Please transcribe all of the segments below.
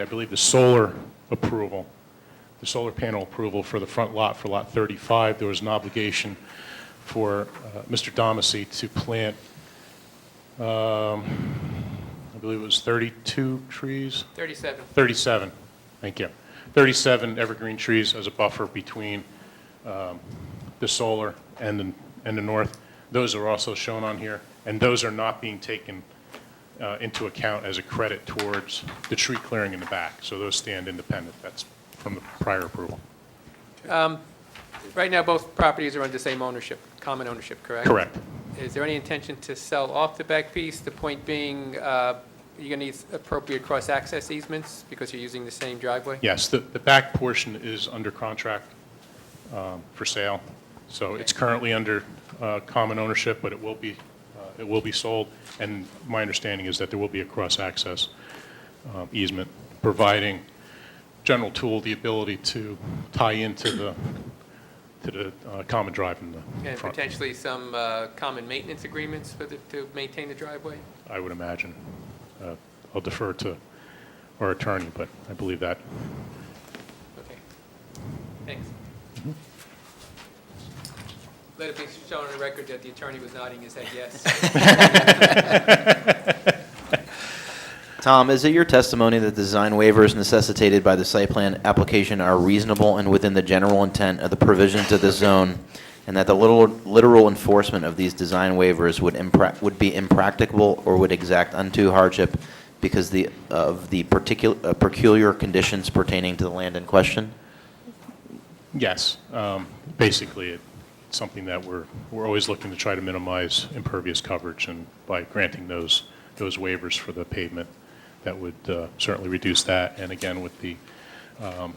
I believe, the solar approval, the solar panel approval for the front lot, for Lot 35, there was an obligation for uh, Mr. Domacy to plant, um, I believe it was 32 trees? 37. 37, thank you. 37 evergreen trees as a buffer between um, the solar and, the- and the north. Those are also shown on here, and those are not being taken uh, into account as a credit towards the tree clearing in the back. So those stand independent. That's from the prior approval. Right now, both properties are under same ownership, common ownership, correct? Correct. Is there any intention to sell off the back piece? The point being, uh, you're going to need appropriate cross-access easements because you're using the same driveway? Yes, the, the back portion is under contract um, for sale. So it's currently under uh, common ownership, but it will be, uh, it will be sold. And my understanding is that there will be a cross-access um, easement, providing General Tool the ability to tie into the, to the uh, common drive in the And front, potentially some uh, common maintenance agreements for the, to maintain the driveway? I would imagine. Uh, I'll defer to our attorney, but I believe that. Okay. Thanks. Let it be shown on the record that the attorney was nodding his head yes. Tom, is it your testimony that the design waivers necessitated by the site plan application are reasonable and within the general intent of the provisions of the zone, and that the little- literal enforcement of these design waivers would impra- would be impracticable or would exact unto hardship because the, of the particular, peculiar conditions pertaining to the land in question? Yes, um, basically, it's something that we're, we're always looking to try to minimize impervious coverage, and by granting those, those waivers for the pavement, that would uh, certainly reduce that, and again, with the, um,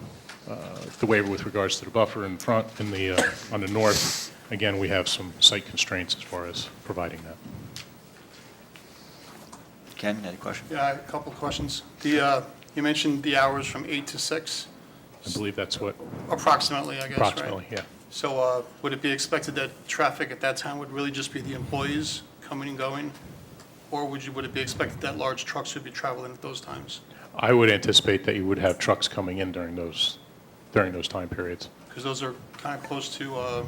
uh, the waiver with regards to the buffer in front, in the, uh, on the north, again, we have some site constraints as far as providing that. Ken, any question? Yeah, a couple of questions. The, uh, you mentioned the hours from 8 to 6, I believe that's what, approximately, I guess, right? approximately, yeah. So uh, would it be expected that traffic at that time would really just be the employees coming and going? Or would you, would it be expected that large trucks would be traveling at those times? I would anticipate that you would have trucks coming in during those, during those time periods. Because those are kind of close to uh,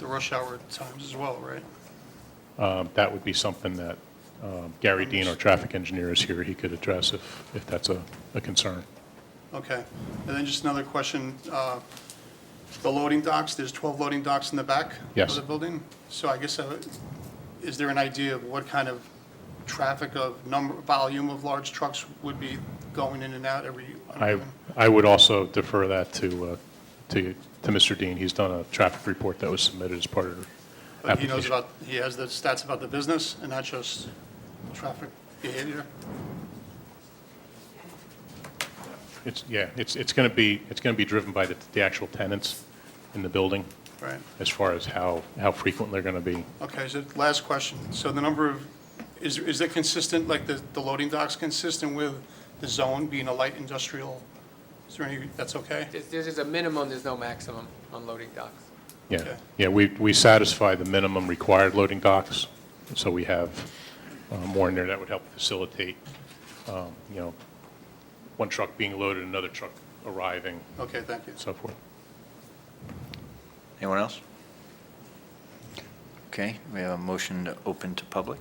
the rush hour times as well, right? Um, That would be something that um, Gary Dean, our traffic engineer, is here, he could address if, if that's a, a concern. Okay. And then just another question, uh, the loading docks, there's 12 loading docks in the back Yes. of the building? So I guess, uh, is there an idea of what kind of traffic of number, volume of large trucks would be going in and out every? I, I would also defer that to, uh, to, to Mr. Dean, he's done a traffic report that was submitted as part of the But he knows application. about, he has the stats about the business and not just traffic behavior? It's, yeah, it's, it's going to be, it's going to be driven by the, the actual tenants in the building, Right. as far as how, how frequent they're going to be. Okay, so last question. So the number of, is, is it consistent, like the, the loading docks consistent with the zone being a light industrial? Is there any, that's okay? This this is a minimum, there's no maximum on loading docks. Yeah, Okay. yeah, we, we satisfy the minimum required loading docks, so we have uh, more in there that would help facilitate, um, you know, one truck being loaded, another truck arriving, Okay, thank you. and so forth. Anyone else? Okay, we have a motion to open to public.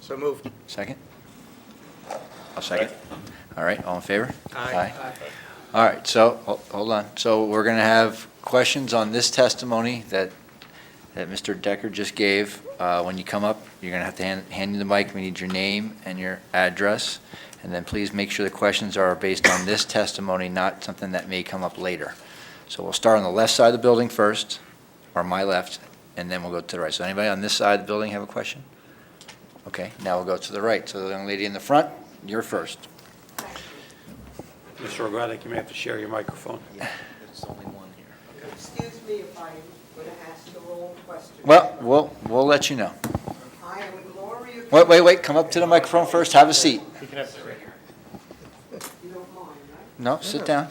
So moved. Second? I'll second. All right, all in favor? Aye. All right, so, ho- hold on. So we're going to have questions on this testimony that, that Mr. Decker just gave. Uh, When you come up, you're going to have to hand, hand you the mic. We need your name and your address. And then please make sure the questions are based on this testimony, not something that may come up later. So we'll start on the left side of the building first, or my left, and then we'll go to the right. So anybody on this side of the building have a question? Okay, now we'll go to the right. So the young lady in the front, you're first. Mr. Rogatic, you may have to share your microphone. There's only one here. Excuse me if I'm going to ask the wrong question. Well, we'll, we'll let you know. I am Gloria. Wait, wait, wait, come up to the microphone first, have a seat. You don't mind, right? No, sit down.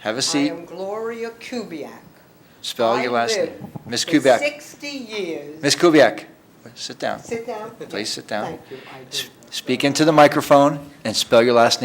Have a I seat, am Gloria Kubiak. spell your I last name. lived Ms. for Kubiak, 60 years. Ms. Kubiak, sit down. Sit down. Please sit down. Thank you, I S- do. Speak into the microphone and spell your last name